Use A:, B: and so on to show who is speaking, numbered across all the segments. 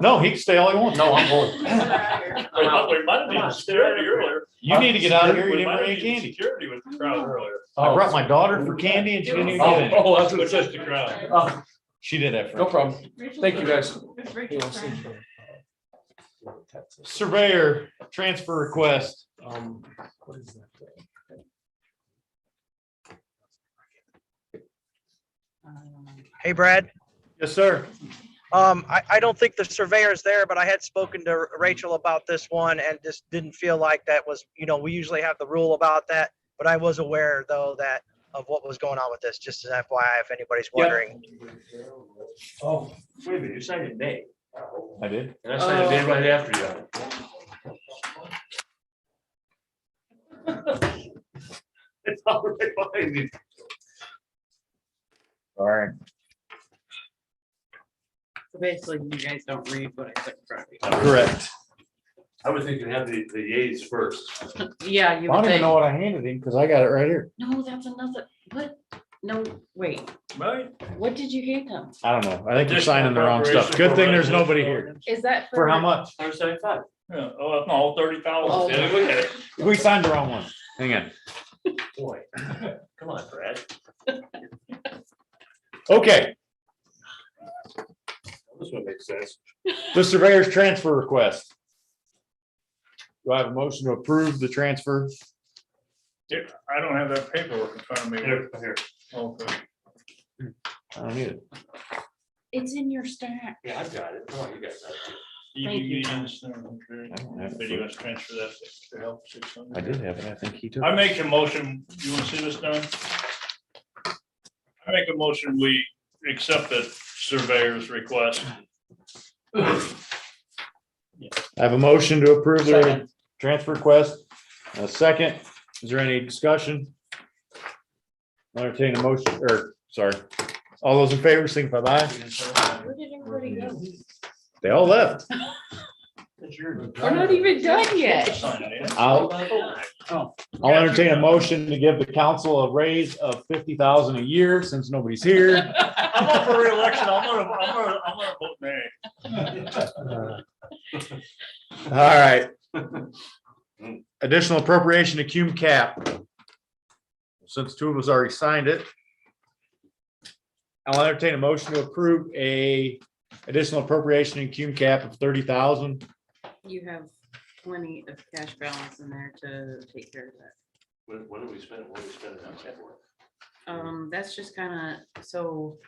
A: No, he can stay all he wants.
B: No, I'm going.
C: Come out here.
D: We might- we might have
B: Come on,
D: been security
B: Sarah.
D: earlier.
A: You need to get out of here. You
D: We
A: didn't
D: might have
A: bring any
D: been
A: candy.
D: Security with the crowd earlier.
A: I brought my daughter for candy and she didn't even get it.
B: Oh, oh, that's
D: It
B: what
D: was
B: it says.
D: just the crowd.
B: Oh,
A: She did that for
B: No
A: me.
B: problem.
C: Rachel's
B: Thank you, guys.
C: friend. Rachel's friend.
A: Surveyor, transfer request.
B: Um, what is that?
E: Hey, Brad.
A: Yes, sir.
E: Um, I, I don't think the surveyor's there, but I had spoken to Rachel about this one and just didn't feel like that was, you know, we usually have the rule about that. But I was aware though that of what was going on with this, just as FYI, if anybody's wondering.
B: Oh, wait a minute, you signed it May,
A: I did.
B: and I signed it May right after you.
D: It's all right behind me.
E: Sorry.
C: So Basically, you guys don't read what I put in front of
A: Correct.
B: I was thinking have the, the yays first.
C: you. Yeah,
A: I
C: you would
A: don't even
C: think.
A: know what I handed him because I got it right here.
C: No, that's another, what? No, wait,
D: Right?
C: what did you hand them?
A: I don't know. I think you're
D: Additional
A: signing the wrong stuff.
D: preparation
A: Good thing
D: for
A: there's
D: residential
A: nobody here.
D: ordinance.
C: Is that for?
A: For how much?
D: Yeah, oh, no, thirty
C: Oh.
D: thousand. Yeah, look at it.
A: We signed the wrong one. Hang on.
B: Boy, come on, Brad.
A: Okay,
B: This one makes sense.
A: the surveyor's transfer request. Do I have a motion to approve the transfer?
D: Here, I don't have that paperwork in front of me.
B: Here, here.
D: Okay.
A: I don't need it.
C: It's in your stack.
B: Yeah, I've got it. Come on, you got that.
D: You-
C: Thank
D: you
C: you.
D: understand, okay.
A: I don't have it.
D: Maybe you must transfer that to help. six hundred.
A: I did have it. I think he took.
D: I make a motion, you want to see this, Don? I make a motion, we accept the surveyor's request.
A: I have a motion to approve the transfer request. A second, is there any discussion? I'll Entertain a motion, or, sorry, all those in favor, signify by aye.
C: Where did everybody go?
A: They all left.
C: We're not even Oh, done yet.
D: Sign it, yeah.
B: Oh,
A: I'll, I'll entertain a motion to give the council a raise of fifty thousand a year since nobody's here.
D: I'm up for reelection, I'm gonna, I'm gonna, I'm gonna vote nay.
A: All right. Additional appropriation to cum cap. Since two of us already signed it. I'll entertain a motion to approve a additional appropriation in cum cap of thirty thousand.
C: You have plenty of cash balance in there to take care of that.
B: What, what do we spend, what do we spend it on for?
C: Um, that's just kind of, so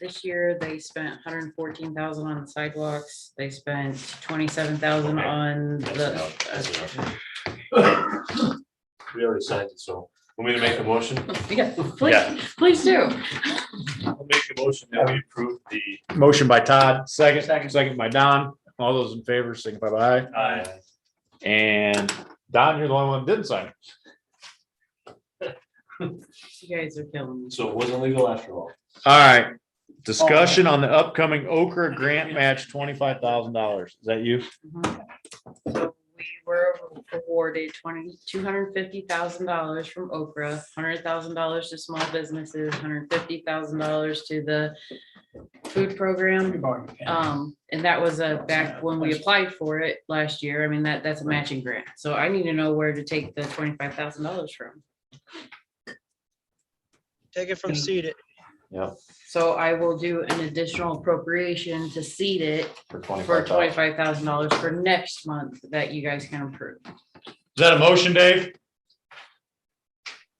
C: this year they spent hundred and fourteen thousand on sidewalks. They spent twenty-seven thousand
B: Okay.
C: on
B: That's
C: the,
B: enough, that's enough. We already signed it, so, want me to make a motion?
C: yeah, please, please do.
B: I'll make a motion that we approve the.
A: Motion by Todd, second, second by Don. All those in favor, signify by aye.
D: Aye.
A: And Don, you're the only one that didn't sign.
C: You guys are killing me.
B: So it wasn't legal after all.
A: All right, discussion on the upcoming Okra grant match, twenty-five thousand dollars. Is that you?
C: Mhm. So we were awarded twenty, two hundred fifty thousand dollars from Okra, hundred thousand dollars to small businesses, hundred fifty thousand dollars to the food program. Um, and that was a, back when we applied for it last year, I mean, that, that's a matching grant. So I need to know where to take the twenty-five thousand dollars from.
E: Take it from seated.
C: So I will do an additional appropriation to seed it
A: For 25,000.
C: for
A: Is
C: twenty-five thousand dollars for next month that you guys can approve.
A: that a motion, Dave?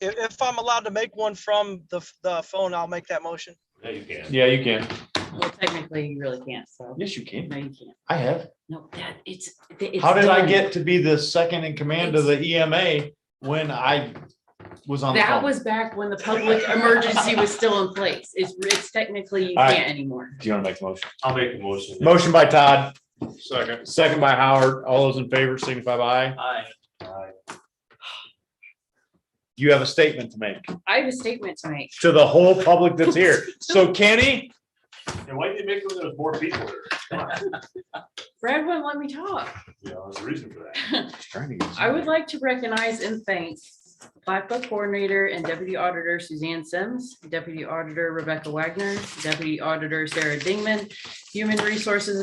E: If, if I'm allowed to make one from the, the phone, I'll make that motion.
B: Yeah, you can.
A: Yeah, you can.
C: Well, technically, you really can't, so.
A: Yes, you can.
C: No, you can't.
A: I have.
C: No, that, it's. th- it's
A: How did I
C: done.
A: get to be the second in command of the EMA when I was on the
C: That
A: phone?
C: was back when the public emergency was still in place. It's, it's technically you
A: All right.
C: can't anymore.
A: Do you want to make the motion?
B: I'll make a motion.
A: Motion by Todd,
D: Second.
A: second by Howard. All those in favor, signify by aye.
B: Aye.
A: You have a statement to make
C: I have a statement to make.
A: to the whole public that's here. So Kenny,
B: And why did you make it when there's more people there?
C: Brad wouldn't let me talk.
B: Yeah, there's a reason for that.
C: I would like to recognize and thank Black Book Coordinator and Deputy Auditor Suzanne Sims, Deputy Auditor Rebecca Wagner, Deputy Auditor Sarah Dingman, Human Resources